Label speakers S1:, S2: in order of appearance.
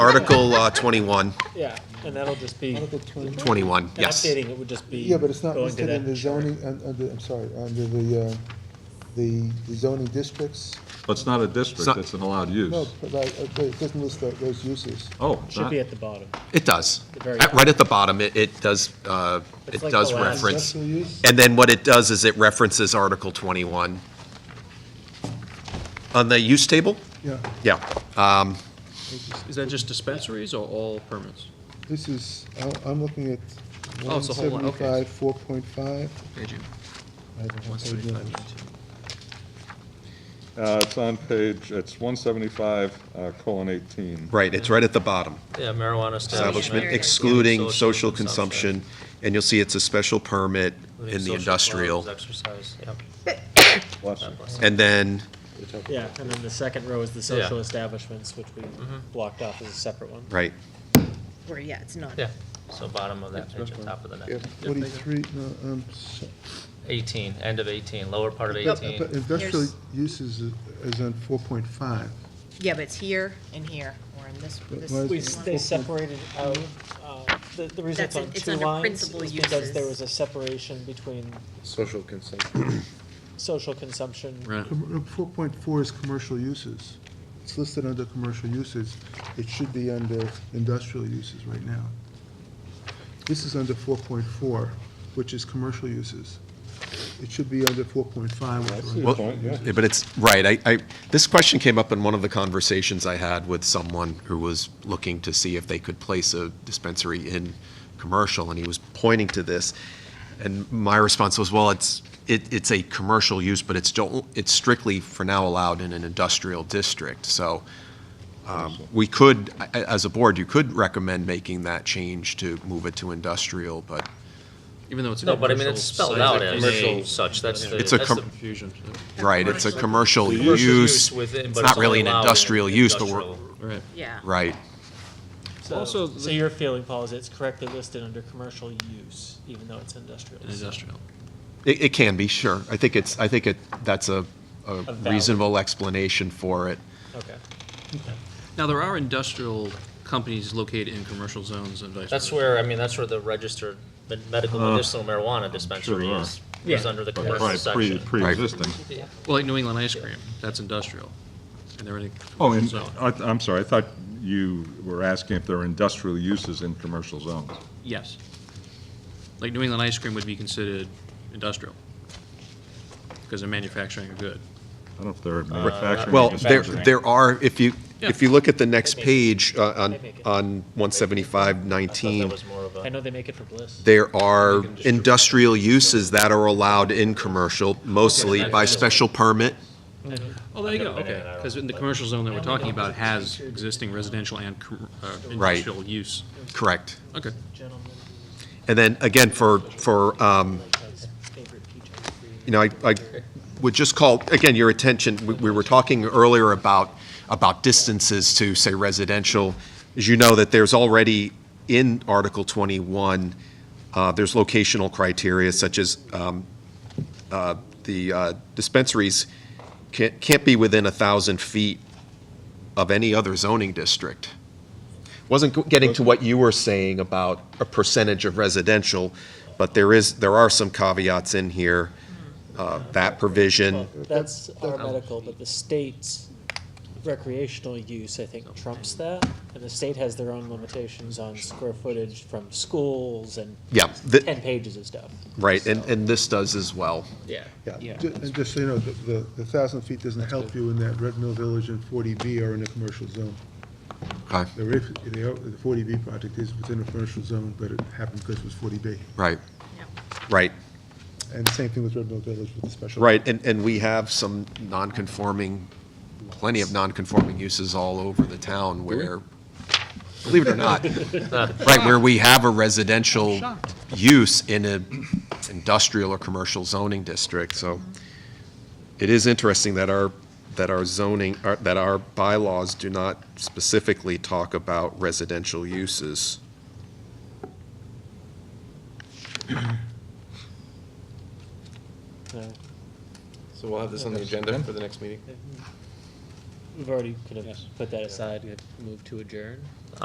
S1: Article uh, 21,
S2: Yeah, and that'll just be, and
S3: Article 20.
S1: 21, yes.
S2: updating it would just be.
S3: Yeah, but it's not
S2: going to
S3: listed
S2: that
S3: in the
S2: chart.
S3: zoning, un- under, I'm sorry, under the, uh, the the zoning districts.
S4: But it's not a
S1: It's
S4: district,
S1: not-
S4: it's an allowed
S3: No,
S4: use.
S3: but like, uh, but it doesn't list tho- those uses.
S4: Oh,
S2: Should
S4: not,
S2: be at the bottom.
S1: It does.
S2: The very
S1: At- Right at the bottom, it, it does, uh, it
S2: It's like
S1: does
S2: the last-
S1: reference.
S3: Industrial use?
S1: And then what it does is it references Article 21. On the use table?
S3: Yeah,
S1: Yeah.
S5: Is that just dispensaries or all permits?
S3: this is, I- I'm looking at
S5: Oh, it's a whole lot, okay.
S3: 175, 4.5. I don't have page numbers.
S4: uh, it's on page, it's one seventy-five, uh, colon eighteen.
S1: Right, it's right at the bottom.
S5: Oh,
S6: Yeah,
S1: Establishment
S6: marijuana establishment.
S1: excluding social consumption, and you'll see it's a special permit
S6: including
S1: in the
S6: social
S1: industrial.
S6: clubs, Exercise, yep.
S4: Bless you.
S1: And then,
S2: Yeah, and then the second row is the social
S6: Yeah.
S2: establishments, which we blocked off as a separate one.
S1: right,
S7: Where, yeah, it's not.
S6: Yeah, so bottom of that page, top of the
S3: Yeah,
S6: next.
S3: 43, no, um, so-
S6: 18, end of 18, lower part of
S3: but
S6: 18.
S3: but industrial
S7: There's-
S3: uses is- is on 4.5.
S7: Yeah, but it's here and here, or in this,
S3: But
S7: this.
S3: why is
S2: We,
S3: We-
S7: this one.
S2: they separated out, uh, the, the reason it's
S7: That's it,
S2: on
S7: it's
S2: two
S7: under
S2: lines
S7: principal
S2: is because there
S7: uses.
S2: was a separation between
S5: Social consumption.
S2: social consumption.
S5: Right.
S3: Com- uh, 4.4 is commercial uses. It's listed under commercial uses. It should be under industrial uses right now. This is under 4.4, which is commercial uses. It should be under 4.5. which
S4: I
S3: are
S4: see your
S1: Well-
S4: point, yeah.
S1: Yeah, but it's, right, I, I, this question came up in one of the conversations I had with someone who was looking to see if they could place a dispensary in commercial, and he was pointing to this. And my response was, well, it's, it, it's a commercial use, but it's don't, it's strictly for now allowed in an industrial district, so, um, we could, I- I- as a board, you could recommend making that change to move it to industrial, but
S5: Even though it's. a
S6: No, but I mean,
S5: commercial
S6: it's spelled
S5: site,
S6: out
S5: it's a
S6: as
S5: commercial-
S6: such, that's the,
S1: It's
S6: that's
S1: a
S6: the
S1: com-
S5: Confusion. so-
S1: Right, it's a commercial
S6: commercial
S1: use.
S6: use within,
S1: It's
S6: but
S1: not
S6: it's
S1: really
S6: only
S1: an
S6: allowed in
S1: industrial use, but we're,
S6: industrial.
S5: Right.
S7: Yeah.
S1: right,
S2: So,
S5: Also,
S2: so
S5: the-
S2: your feeling, Paul, is it's correctly listed under commercial use, even though it's industrial.
S5: in Industrial.
S1: it, it can be, sure. I think it's, I think it, that's a, a
S2: valid-
S1: reasonable explanation for it.
S2: Okay.
S5: Now, there are industrial companies located in commercial zones and vice versa.
S6: That's where, I mean, that's where the registered med- medical
S1: Uh,
S6: medicinal marijuana dispensary
S4: there
S6: is,
S2: Yeah.
S6: is under the
S4: But
S6: commercial
S4: Probably pre,
S6: section.
S4: pre-existing.
S5: Well, like New England ice cream, that's industrial. And they're in a
S4: Oh,
S5: commercial
S4: and,
S5: zone.
S4: I, I'm sorry, I thought you were asking if there are industrial uses in commercial zones.
S5: Yes. Like New England ice cream would be considered industrial because they're manufacturing a good.
S4: I don't know if there are
S6: Uh,
S4: manufacturing.
S1: Well,
S4: uses.
S1: there, there are, if you, if you look at the next
S2: Yeah.
S1: page uh, on,
S2: They make it.
S1: on one seventy-five
S6: I thought that
S1: nineteen,
S6: was more of
S2: I
S6: a,
S2: know they make it for Bliss.
S1: there are industrial uses that are allowed in commercial, mostly by special permit.
S5: Oh, there you go,
S6: I've never been in
S5: okay.
S6: and I don't
S5: Because in the
S6: like-
S5: commercial zone that we're talking about has existing residential and com- uh,
S1: Right.
S5: industrial use.
S1: Correct.
S5: Okay.
S2: Gentlemen,
S1: And then again, for, for, um,
S2: like his favorite PJ.
S1: you know, I, I would just call, again, your attention, we, we were talking earlier about, about distances to, say, residential. As you know, that there's already in Article 21, uh, there's locational criteria such as, um, uh, the uh, dispensaries can't, can't be within a 1,000 feet of any other zoning district. Wasn't go- getting to what you were saying about a percentage of residential, but there is, there are some caveats in here. uh, That provision,
S2: That's our medical, but the state's recreational use, I think, trumps that. And the state has their own limitations on square footage from schools and
S1: yeah, th-
S2: ten pages of stuff.
S1: right, and, and this does as well.
S2: Yeah.
S3: Yeah, ju- and just so you know, the, the- the 1,000 feet doesn't help you in that Red Mill Village and 40B are in a commercial zone.
S1: Okay,
S3: The re- the o- the 40B project is within a commercial zone, but it happened because it was 40B.
S1: right,
S7: Yep.
S1: right,
S3: And the same thing with Red Mill Village with the special.
S1: right, and, and we have some non-conforming, plenty of non-conforming uses all over the town where, believe it or not, right, where we have a residential use in an industrial or commercial zoning district, so it is interesting that our, that our zoning, our- that our bylaws do not specifically talk about residential uses.
S2: No,
S8: So we'll have this on the agenda for the next meeting?
S2: We've already kind of put that aside, We've moved to adjourn.